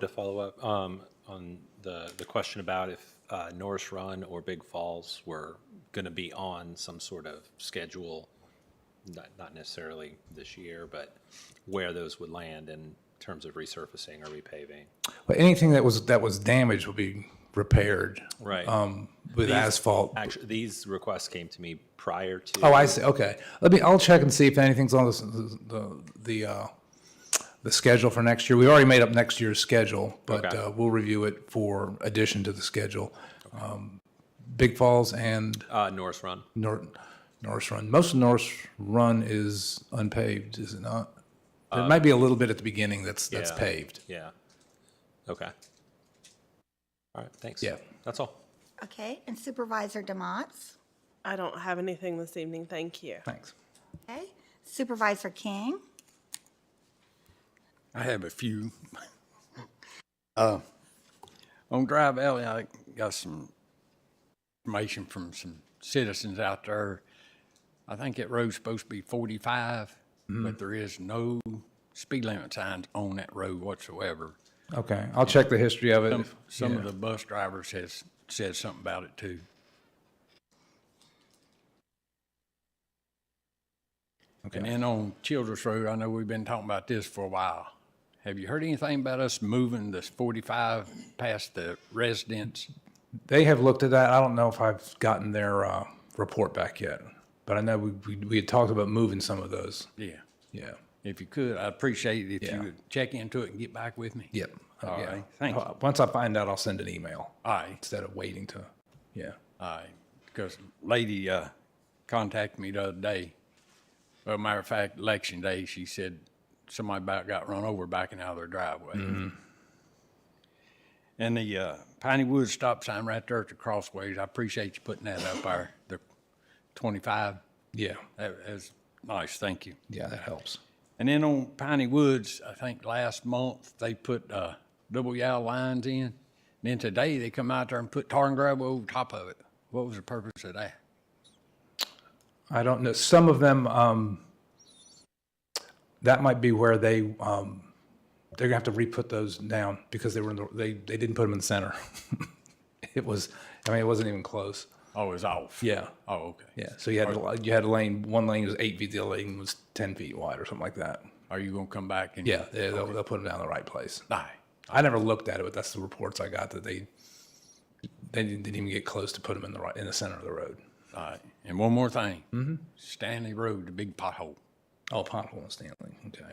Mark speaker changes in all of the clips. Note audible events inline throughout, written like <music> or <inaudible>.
Speaker 1: To follow up um, on the, the question about if uh, Norris Run or Big Falls were going to be on some sort of schedule, not, not necessarily this year, but where those would land in terms of resurfacing or repaving.
Speaker 2: But anything that was, that was damaged will be repaired.
Speaker 1: Right.
Speaker 2: Um, with asphalt.
Speaker 1: Actually, these requests came to me prior to.
Speaker 2: Oh, I see, okay. Let me, I'll check and see if anything's on the, the, the, uh, the schedule for next year. We already made up next year's schedule, but,
Speaker 1: Okay.
Speaker 2: uh, we'll review it for addition to the schedule. Um, Big Falls and
Speaker 1: Uh, Norris Run.
Speaker 2: Nor- Norris Run. Most of Norris Run is unpaved, is it not?
Speaker 3: Uh,
Speaker 2: There might be a little bit at the beginning that's, that's
Speaker 1: Yeah.
Speaker 2: paved.
Speaker 1: Yeah. Okay. All right, thanks.
Speaker 2: Yeah.
Speaker 1: That's all.
Speaker 4: Okay, and Supervisor Demots.
Speaker 5: I don't have anything this evening, thank you.
Speaker 2: Thanks.
Speaker 4: Okay, Supervisor King.
Speaker 3: I have a few. Uh, On Drive Alley, I got some information from some citizens out there. I think that road's supposed to be forty-five, but there is no speed limit signs on that road whatsoever.
Speaker 2: Okay, I'll check the history of it.
Speaker 3: Some- Some of the bus drivers has said something about it too. And then on Childress Road, I know we've been talking about this for a while. Have you heard anything about us moving this forty-five past the residence?
Speaker 2: They have looked at that. I don't know if I've gotten their uh, report back yet, but I know we, we, we had talked about moving some of those.
Speaker 3: Yeah.
Speaker 2: Yeah.
Speaker 3: If you could, I'd appreciate it if
Speaker 2: Yeah.
Speaker 3: you would check into it and get back with me.
Speaker 2: Yep. Uh,
Speaker 3: All
Speaker 2: yeah.
Speaker 3: right, thank you.
Speaker 2: Uh, Once I find out, I'll send an email
Speaker 3: All right.
Speaker 2: instead of waiting to. Yeah.
Speaker 3: Aye, because lady uh, contacted me the other day. Well, matter of fact, election day, she said somebody about got run over backing out of their driveway. And the uh, Piney Woods stop sign right there at the crossways, I appreciate you putting that up there, the 25.
Speaker 2: Yeah.
Speaker 3: That is nice, thank you.
Speaker 2: Yeah, that helps.
Speaker 3: And then on Piney Woods, I think last month, they put uh, double yellow lines in. And Then today, they come out there and put tar and gravel over top of it. What was the purpose of that?
Speaker 2: I don't know. Some of them, um, that might be where they, um, they're gonna have to re-put those down because they were in the, they, they didn't put them in the center. <laughs> it was, I mean, it wasn't even close.
Speaker 3: Oh, it's off.
Speaker 2: Yeah.
Speaker 3: Oh, okay.
Speaker 2: Yeah, so you had a li- you had a lane. One lane was eight feet. The other lane was ten feet wide, or something like that.
Speaker 3: Are you gonna come back and?
Speaker 2: Yeah, they, they'll, they'll put them down in the right place.
Speaker 3: Aye.
Speaker 2: I never looked at it, but that's the reports I got that they they didn't, didn't even get close to put them in the right in the center of the road.
Speaker 3: Aye. And one more thing. Mm-hmm. Stanley Road, the big pothole.
Speaker 2: Oh, pothole in Stanley. Okay.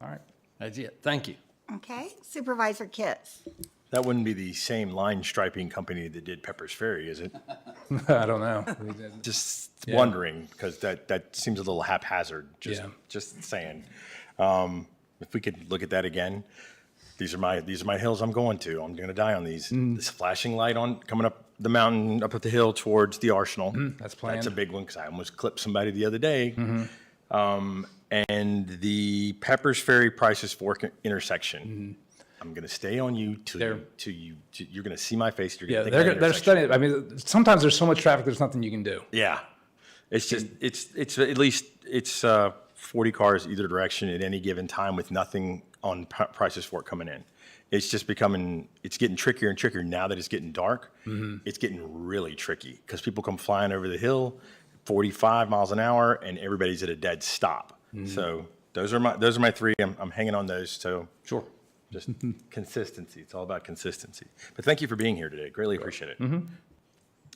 Speaker 2: All right.
Speaker 3: That's it. Thank you.
Speaker 4: Okay, Supervisor Kits.
Speaker 6: That wouldn't be the same line striping company that did Pepper's Ferry, is it?
Speaker 2: <laughs> I don't <laughs> know.
Speaker 6: Just wondering, because that, that seems a little haphazard, just,
Speaker 2: Yeah.
Speaker 6: just saying. Um, If we could look at that again, these are my, these are my hills I'm going to, I'm gonna die on these.
Speaker 2: Mm.
Speaker 6: This flashing light on, coming up the mountain, up at the hill towards the Arsenal.
Speaker 2: Mm, that's
Speaker 6: That's a
Speaker 2: planned. Mm-hmm.
Speaker 6: big one, because I almost clipped somebody the other day. Um, And the Pepper's Ferry Prices Fork intersection.
Speaker 2: Mm-hmm.
Speaker 6: I'm gonna stay on you till, you- till you, till you're gonna see my face, you're
Speaker 2: Yeah,
Speaker 6: gonna think
Speaker 2: they're
Speaker 6: of that
Speaker 2: gonna- they're
Speaker 6: intersection.
Speaker 2: studying. I mean, sometimes there's so much traffic, there's nothing you can do.
Speaker 6: Yeah. It's just, it's, it's at least, it's uh, 40 cars either direction at any given time with nothing on p- prices for it coming in. It's just becoming, it's getting trickier and trickier now that it's getting dark.
Speaker 2: Mm-hmm.
Speaker 6: It's getting really tricky because people come flying over the hill, 45 miles an hour, and everybody's at a dead stop.
Speaker 2: Mm-hmm.
Speaker 6: So those are my, those are my three. I'm, I'm hanging on those. So sure. Just consistency. It's all about consistency. But thank you for being here today. Greatly appreciate it.
Speaker 2: Mm-hmm.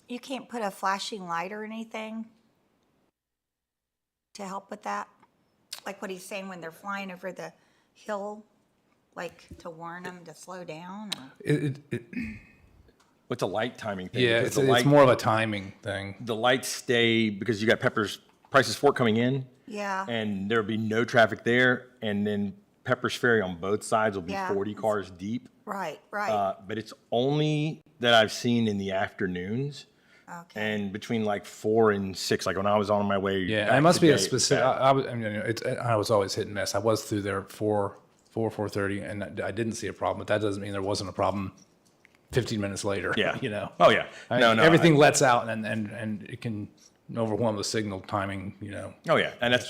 Speaker 4: You can't put a flashing light or anything to help with that? Like what he's saying when they're flying over the hill, like to warn them to slow down? or-
Speaker 2: It, it, it,
Speaker 6: What's a light timing thing?
Speaker 2: yeah,
Speaker 6: because
Speaker 2: it's,
Speaker 6: the
Speaker 2: it's
Speaker 6: light-
Speaker 2: more of a timing thing.
Speaker 6: the lights stay because you got Pepper's Prices Fork coming in,
Speaker 4: Yeah,
Speaker 6: and there'll be no traffic there, and then Pepper's Ferry on both sides will be
Speaker 4: Yeah.
Speaker 6: forty cars deep.
Speaker 4: right, right,
Speaker 6: Uh, but it's only that I've seen in the afternoons,
Speaker 4: okay.
Speaker 6: and between like four and six. Like when I was on my way,
Speaker 2: Yeah, and
Speaker 6: back
Speaker 2: it must be a
Speaker 6: today,
Speaker 2: specific. I,
Speaker 6: back-
Speaker 2: I was, I mean, it's, I was always hit and miss. I was through there four, four, four thirty, and I, I didn't see a problem. But that doesn't mean there wasn't a problem. Fifteen minutes later,
Speaker 6: Yeah.
Speaker 2: <laughs> you know,
Speaker 6: Oh yeah.
Speaker 2: I mean,
Speaker 6: no, no. I-
Speaker 2: everything lets out, and and and it can
Speaker 7: overwhelm the signal timing, you know,
Speaker 2: Oh, yeah. And that's